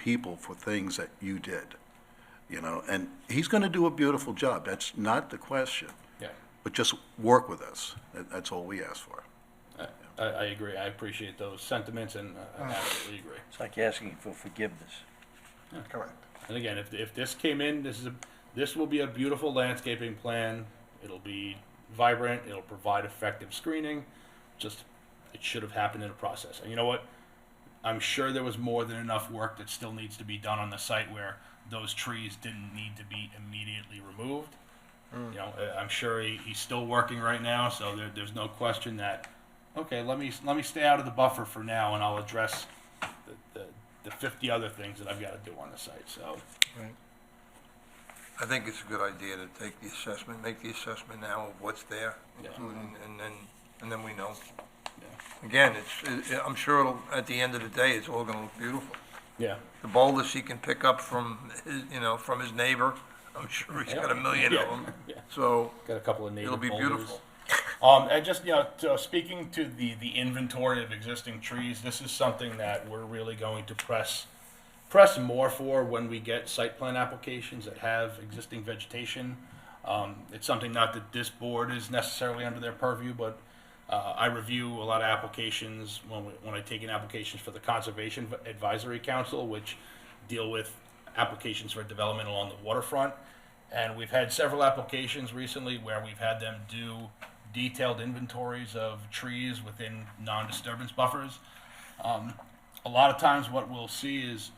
people for things that you did, you know, and he's going to do a beautiful job. That's not the question. Yeah, But just work with us. That, that's all we ask for. I, I I agree. I appreciate those sentiments and uh, I absolutely agree. It's like asking for forgiveness. Correct. And again, if, if this came in, this is a, this will be a beautiful landscaping plan. It'll be vibrant. It'll provide effective screening. Just it should have happened in a process. And you know what? I'm sure there was more than enough work that still needs to be done on the site where those trees didn't need to be immediately removed. You know, I- I'm sure he, he's still working right now, so there, there's no question that okay, let me let me stay out of the buffer for now, and I'll address the, the, the 50 other things that I've got to do on the site. So. I think it's a good idea to take the assessment, make the assessment now of what's there, Yeah. including, and then, and then we know. Yeah. Again, it's, it- I'm sure it'll, at the end of the day, it's all gonna look beautiful. Yeah. The boulders he can pick up from, his you know, from his neighbor, I'm sure he's got a million of them. Yeah. So, Got a couple of native It'll be boulders. beautiful. Um, and just you know, to, uh, speaking to the the inventory of existing trees, this is something that we're really going to press press more for when we get site plan applications that have existing vegetation. Um, it's something not that this board is necessarily under their purview, but uh, I review a lot of applications when, we, when I take in applications for the Conservation Advisory Council, which deal with applications for development along the waterfront. And we've had several applications recently where we've had them do detailed inventories of trees within non-disturbance buffers. Um, a lot of times what we'll see is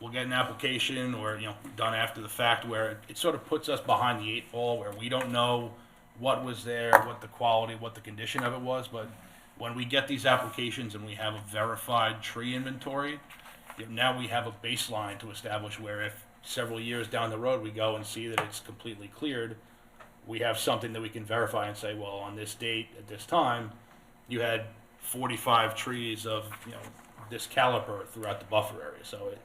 we'll get an application or, you know, done after the fact where it, it sort of puts us behind the eight ball where we don't know what was there, what the quality, what the condition of it was, but when we get these applications and we have a verified tree inventory, you know, now we have a baseline to establish where if several years down the road we go and see that it's completely cleared, we have something that we can verify and say, well, on this date, at this time, you had forty-five trees of, you know, this caliber throughout the buffer area, so it,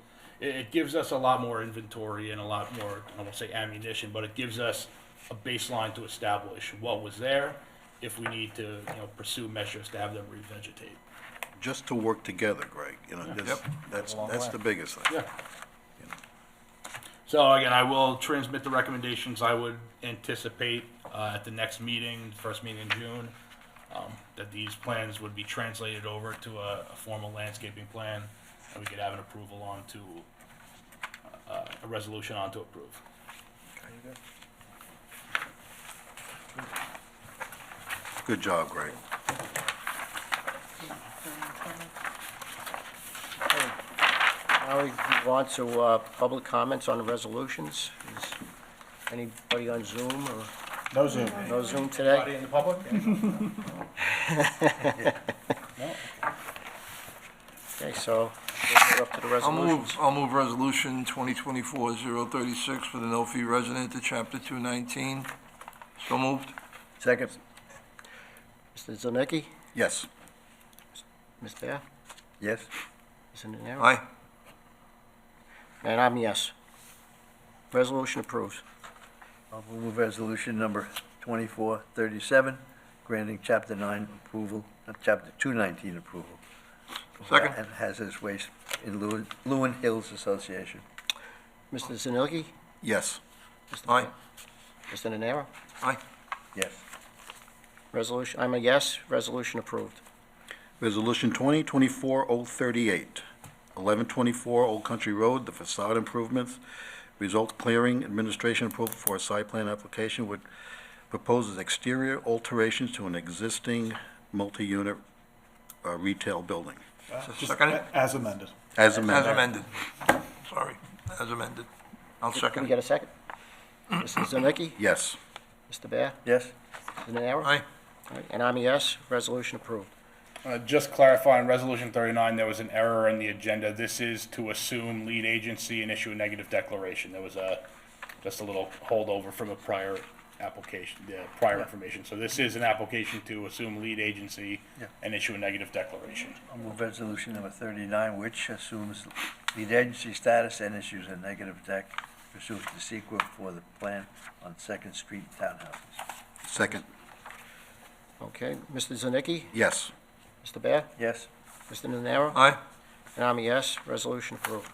it, it gives us a lot more inventory and a lot more, I won't say ammunition, but it gives us a baseline to establish what was there, if we need to, you know, pursue measures to have them revegetate. Just to work together, Greg, you know, this, Yep. that's, A long that's way. the biggest thing. Yeah. So again, I will transmit the recommendations I would anticipate uh, at the next meeting, first meeting in June, um, that these plans would be translated over to a a formal landscaping plan, and we could have an approval on to, uh, a resolution on to approve. Good job, Greg. Now we want to, uh, public comments on the resolutions. Is anybody on Zoom or? No Zoom. No Zoom today? in the public? Okay, so we're up to the I'll move, resolutions. I'll move resolution 2024-036 for the no fee resident to chapter 219. So moved. Second. Mr. Zilnicki, Yes. Ms. Bear, Yes. Ms. Nenaro? Aye. And I'm yes. Resolution approved. I'll move resolution number 2437, granting chapter 9 approval, uh, chapter 219 approval. Second. And hazardous waste in Lewin- Lewin Hills Association. Mr. Zilnicki? Yes. Mr. Aye. Mr. Nenaro? Aye. Yes. Resolution, I'm a yes, resolution approved. Resolution 2024-038, 1124 Old Country Road, the facade improvements, result clearing, administration approval for a site plan application which proposes exterior alterations to an existing multi-unit uh, retail building, So Second it? As amended. as As amended. amended. Sorry, as amended. I'll Can we second get it. a second? Mr. Zilnicki? Yes. Mr. Bear? Yes? Mr. Nenaro? Aye. All right, And I'm a yes, resolution approved. Uh, Just clarifying, Resolution 39, there was an error in the agenda. This is to assume lead agency and issue a negative declaration. There was a, just a little holdover from a prior application, the prior information. So this is an application to assume lead agency Yeah. and issue a negative declaration. I'll move resolution number 39, which assumes lead agency status and issues a negative deck pursuant to SEQA for the plan on Second Street townhouses. Second. Okay, Mr. Zilnicki? Yes. Mr. Bear? Yes? Mr. Nenaro? Aye. And I'm a yes, resolution approved.